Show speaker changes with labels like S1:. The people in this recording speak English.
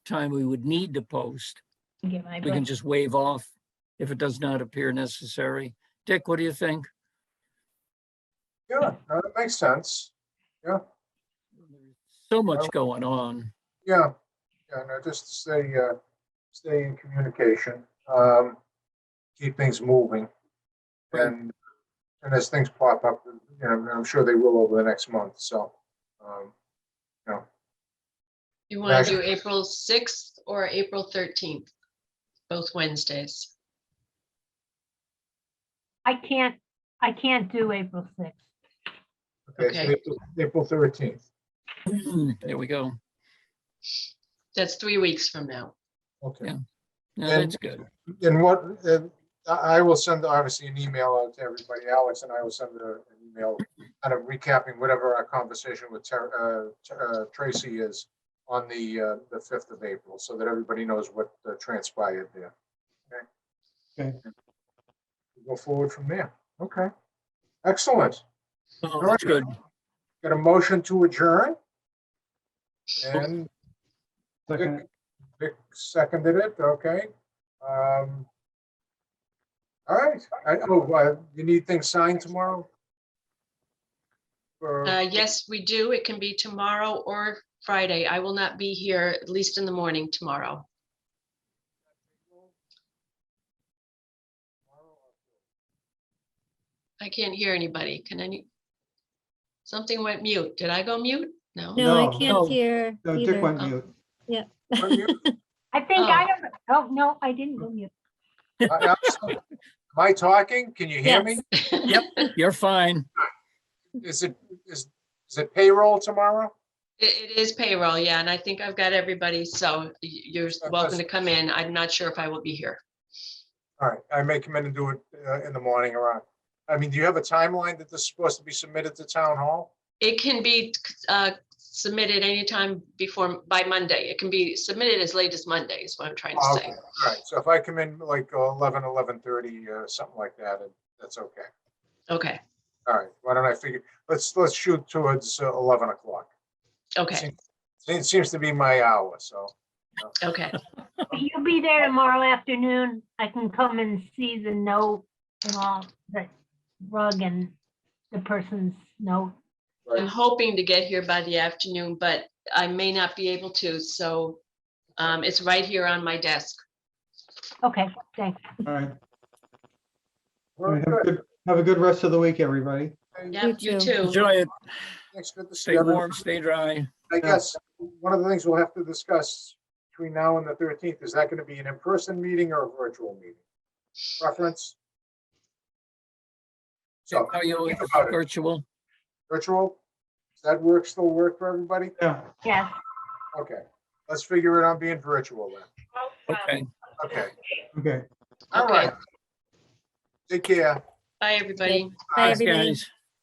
S1: time we would need to post.
S2: Give my
S1: We can
S2: blessing.
S1: just waive off if it does not appear necessary. Dick, what do you think?
S3: Yeah, no, that makes sense.
S1: So much going on.
S3: Yeah, yeah, no, just to stay, uh, stay in communication, um, keep things moving.
S1: Right.
S3: And, and as things pop up, you know, and I'm sure they will over the next month, so, um,
S4: You want to
S3: Actually-
S4: do April 6th or April 13th? Both Wednesdays.
S2: I can't, I can't do April sixth.
S3: okay, so
S4: Okay.
S3: April- April thirteenth,
S1: There we go.
S4: That's three weeks from now.
S3: okay.
S1: Yeah. No,
S3: And-
S1: that's good.
S3: And what, uh, I, I will send, obviously, an email out to everybody, Alex and I will send a- an email kind of recapping whatever our conversation with Ter- uh, Ter- uh, Tracy is on the, uh, the fifth of April, so that everybody knows what uh, transpired there. Okay. Go forward from there. Okay. Excellent.
S1: Oh, That's good.
S3: Got a motion to adjourn? And
S5: Second,
S3: Vic seconded it, okay. Um, All right, I, oh, uh, you need things signed tomorrow? Or-
S4: Uh, Yes, we do. It can be tomorrow or Friday. I will not be here, at least in the morning tomorrow. I can't hear anybody. Can any? Something went mute. Did I go mute? No. Oh.
S6: No,
S5: No.
S6: I
S1: No.
S6: can't hear
S5: no, Dick
S6: either.
S5: went mute.
S3: Are you-
S2: I think I don't, oh, no, I didn't go mute.
S3: I- I'm- uh, Am I talking? Can you hear me?
S1: You're fine.
S3: Is it, is, is it payroll tomorrow?
S4: It, it is payroll, yeah, and I think I've got everybody, so y- you're welcome to come in. I'm not sure if I will be here.
S3: All right, I may come in and do it uh, in the morning around. I mean, do you have a timeline that this is supposed to be submitted to town hall?
S4: It can be uh, submitted anytime before, by Monday. It can be submitted as late as Monday is what I'm trying to
S3: Ah, Okay,
S4: say.
S3: All right, so if I come in like uh, 11, 11:30, uh, something like that, and that's okay.
S4: Okay,
S3: All right, why don't I figure, let's, let's shoot towards uh, 11 o'clock.
S4: okay,
S3: It seems to be my hour, so.
S4: okay.
S2: You'll be there tomorrow afternoon. I can come and see the note and all, the rug and the person's note.
S4: I'm hoping to get here by the afternoon, but I may not be able to, so um, it's right here on my desk.
S2: Okay, thanks.
S5: All right. All
S3: We're
S5: right, Have a
S3: Oh, good.
S5: good- have a good rest of the week, everybody.
S4: Yep, you
S6: too.
S4: too.
S1: Enjoy it.
S3: Thanks, good to see
S1: Stay
S3: you.
S1: warm, stay dry.
S3: I guess one of the things we'll have to discuss between now and the 13th, is that going to be an in-person meeting or a virtual meeting? Preference? So,
S1: Are you
S3: think about it.
S1: virtual?
S3: virtual? Does that work, still work for everybody?
S5: Yeah.
S2: Yes.
S3: Okay, let's figure it out being virtual then.
S1: Okay.
S3: Okay,
S5: Okay.
S3: all
S4: Okay.
S3: right. Take care.
S4: Bye, everybody.
S6: Bye,
S1: Thanks,
S6: everybody.
S1: guys.